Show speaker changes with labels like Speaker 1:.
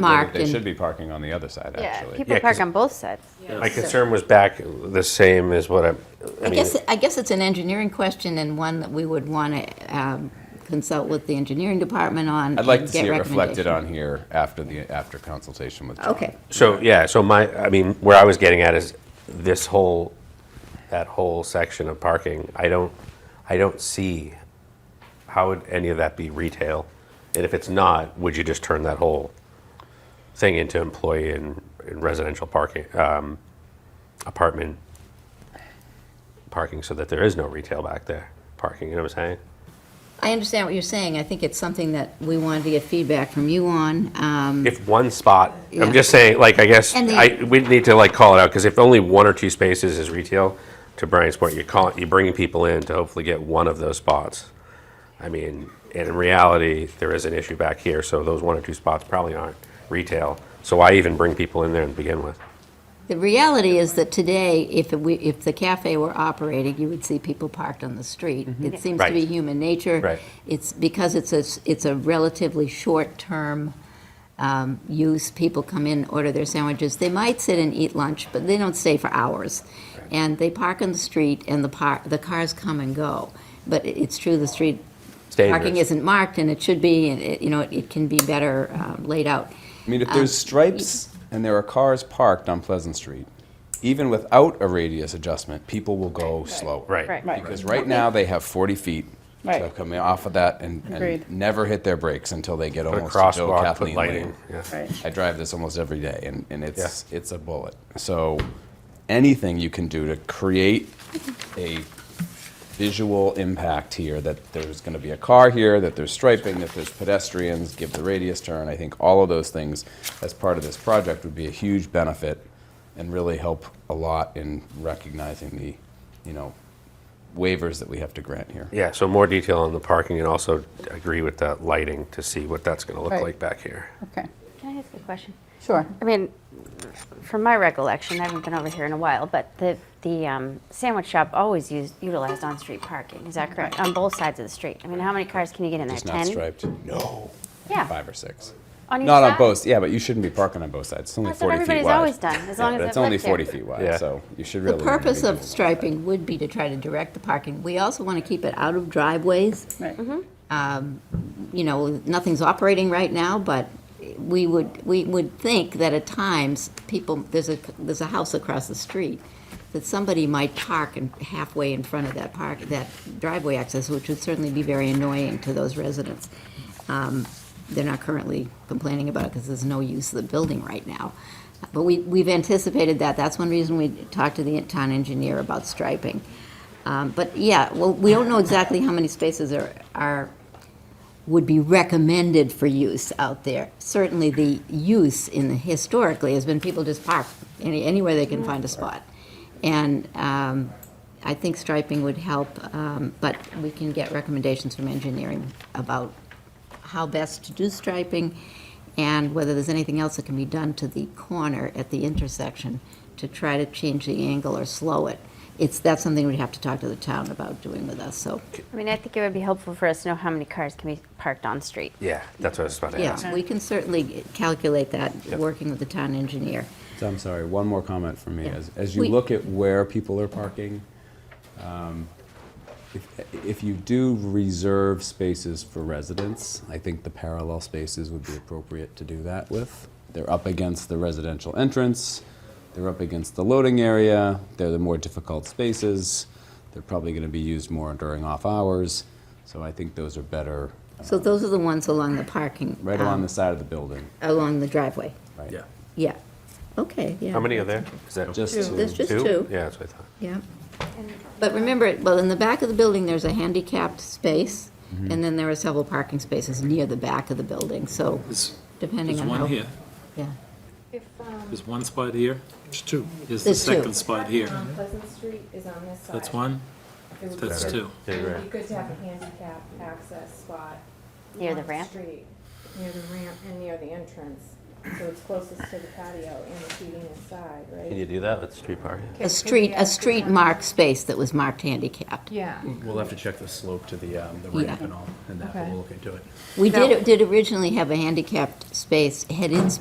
Speaker 1: marked.
Speaker 2: They
Speaker 1: and-
Speaker 2: should be parking on the other side,
Speaker 3: Yeah,
Speaker 2: actually.
Speaker 3: people
Speaker 4: Yeah,
Speaker 3: park
Speaker 4: 'cause-
Speaker 3: on both sides.
Speaker 4: My concern was back the same as what I'm, I
Speaker 1: I
Speaker 4: mean,
Speaker 1: guess, I guess it's an engineering question and one that we would want to um, consult with the engineering department on.
Speaker 2: I'd like
Speaker 1: and
Speaker 2: to see
Speaker 1: get
Speaker 2: it reflected
Speaker 1: recommendations.
Speaker 2: on here after the, after consultation with John.
Speaker 1: Okay,
Speaker 4: so, yeah, so my, I mean, where I was getting at is this whole, that whole section of parking, I don't, I don't see, how would any of that be retail? And if it's not, would you just turn that whole thing into employee and and residential parking, um, apartment parking so that there is no retail back there, parking, you know what I'm saying?
Speaker 1: I understand what you're saying. I think it's something that we wanted to get feedback from you on. Um,
Speaker 4: if one spot,
Speaker 1: Yeah.
Speaker 4: I'm just saying, like, I guess,
Speaker 1: And the-
Speaker 4: I, we need to like call it out, because if only one or two spaces is retail, to Brian's point, you're calling, you're bringing people in to hopefully get one of those spots. I mean, and in reality, there is an issue back here, so those one or two spots probably aren't retail. So why even bring people in there to begin with?
Speaker 1: The reality is that today, if we, if the cafe were operating, you would see people parked on the street. It seems to be
Speaker 4: Mm-hmm. Right.
Speaker 1: human nature.
Speaker 4: Right.
Speaker 1: It's because it's a, s- it's a relatively short-term um, use. People come in, order their sandwiches. They might sit and eat lunch, but they don't stay for hours. And they park on the street and the par, the cars come and go. But it- it's true, the street
Speaker 4: It's
Speaker 1: parking
Speaker 4: dangerous.
Speaker 1: isn't marked and it should be, and it, you know, it- it can be better um, laid out.
Speaker 2: I mean, if there's stripes and there are cars parked on Pleasant Street, even without a radius adjustment, people will go slower.
Speaker 4: Right.
Speaker 3: Right.
Speaker 2: Because right now, they have 40 feet to
Speaker 5: Right.
Speaker 2: come off of that and, and
Speaker 5: Agreed.
Speaker 2: never hit their brakes until they get
Speaker 4: Put a
Speaker 2: almost to Joe
Speaker 4: crosswalk, put
Speaker 2: Kathleen
Speaker 4: lighting,
Speaker 2: Lane.
Speaker 4: yeah.
Speaker 5: Right.
Speaker 2: I drive this almost every day, and, and it's, it's a bullet. So anything you can do to create a visual impact here, that there's going to be a car here, that there's striping, that there's pedestrians, give the radius turn, I think all of those things as part of this project would be a huge benefit and really help a lot in recognizing the, you know, waivers that we have to grant here.
Speaker 4: Yeah, so more detail on the parking, and also agree with that lighting to see what that's gonna look
Speaker 5: Right.
Speaker 4: like back here.
Speaker 5: Okay,
Speaker 3: Can I ask a question?
Speaker 5: sure.
Speaker 3: I mean, from my recollection, I haven't been over here in a while, but the, the um, sandwich shop always used, utilized on-street parking, is that correct? On both sides of the street. I mean, how many cars can you get in there?
Speaker 2: It's not
Speaker 3: 10?
Speaker 2: striped? No.
Speaker 3: Yeah.
Speaker 2: Five or six.
Speaker 3: On each
Speaker 2: Not on
Speaker 3: side?
Speaker 2: both, yeah, but you shouldn't be parking on both sides. It's only
Speaker 3: That's what
Speaker 2: 40 feet wide.
Speaker 3: everybody's always done, as
Speaker 2: Yeah,
Speaker 3: long
Speaker 2: but
Speaker 3: as
Speaker 2: It's
Speaker 3: it
Speaker 2: only
Speaker 3: lets you.
Speaker 2: 40 feet wide,
Speaker 4: Yeah.
Speaker 2: so you should
Speaker 1: The
Speaker 2: really. wanna be
Speaker 1: purpose
Speaker 2: doing
Speaker 1: of
Speaker 2: that.
Speaker 1: striping would be to try to direct the parking. We also want to keep it out of driveways. Um,
Speaker 5: Right.
Speaker 1: You know, nothing's operating right now, but we would, we would think that at times, people, there's a, there's a house across the street, that somebody might park in- halfway in front of that park, that driveway access, which would certainly be very annoying to those residents. Um, They're not currently complaining about it because there's no use of the building right now. But we, we've anticipated that. That's one reason we talked to the town engineer about striping. Um, But yeah, well, we don't know exactly how many spaces are, are, would be recommended for use out there. Certainly, the use in, the- historically, has been people just park any, anywhere they can find a spot. And um, I think striping would help, um, but we can get recommendations from engineering about how best to do striping and whether there's anything else that can be done to the corner at the intersection to try to change the angle or slow it. It's, that's something we'd have to talk to the town about doing with us, so,
Speaker 3: I mean, I think it would be helpful for us to know how many cars can be parked on-street.
Speaker 4: Yeah, that's what I was about to ask.
Speaker 1: yeah, we can certainly calculate that, working with the town engineer.
Speaker 2: So I'm sorry, one more comment from me.
Speaker 1: Yeah.
Speaker 2: As, as you
Speaker 1: We-
Speaker 2: look at where people are parking, um, if, if you do reserve spaces for residents, I think the parallel spaces would be appropriate to do that with. They're up against the residential entrance, they're up against the loading area, they're the more difficult spaces, they're probably going to be used more during off hours, so I think those are better
Speaker 1: So those are the ones along the parking.
Speaker 2: right along
Speaker 1: um,
Speaker 2: the side of the building.
Speaker 1: Along the driveway,
Speaker 2: Right?
Speaker 4: Yeah.
Speaker 1: yeah. Okay, yeah.
Speaker 4: How many are there? Is that
Speaker 2: Just
Speaker 1: Two.
Speaker 2: to-
Speaker 1: There's just two.
Speaker 4: Yeah, that's what I thought.
Speaker 1: Yeah. But remember, well, in the back of the building, there's a handicapped space,
Speaker 6: Mm-hmm.
Speaker 1: and then there are several parking spaces near the back of the building, so
Speaker 6: There's
Speaker 1: depending
Speaker 6: there's
Speaker 1: on how.
Speaker 6: one here,
Speaker 1: Yeah.
Speaker 6: there's one spot here,
Speaker 7: It's two.
Speaker 6: there's the
Speaker 1: There's two.
Speaker 6: second spot here.
Speaker 8: Um, Pleasant Street is on this side.
Speaker 6: That's one,
Speaker 8: It would be
Speaker 6: that's
Speaker 8: good-
Speaker 6: two.
Speaker 8: It would be good to have a handicap access spot.
Speaker 3: Near the
Speaker 8: on
Speaker 3: ramp?
Speaker 8: street, Near the ramp and near the entrance, so it's closest to the patio and the seating inside, right?
Speaker 4: Can you do that with street parking?
Speaker 1: A street, a street marked space that was marked handicapped.
Speaker 8: Yeah.
Speaker 7: We'll have to check the slope to the, um, the
Speaker 1: Yeah.
Speaker 7: ramp and all, and that, but
Speaker 8: Okay.
Speaker 7: we'll look into it.
Speaker 1: We
Speaker 8: Now-
Speaker 1: did, did originally have a handicapped space, head-in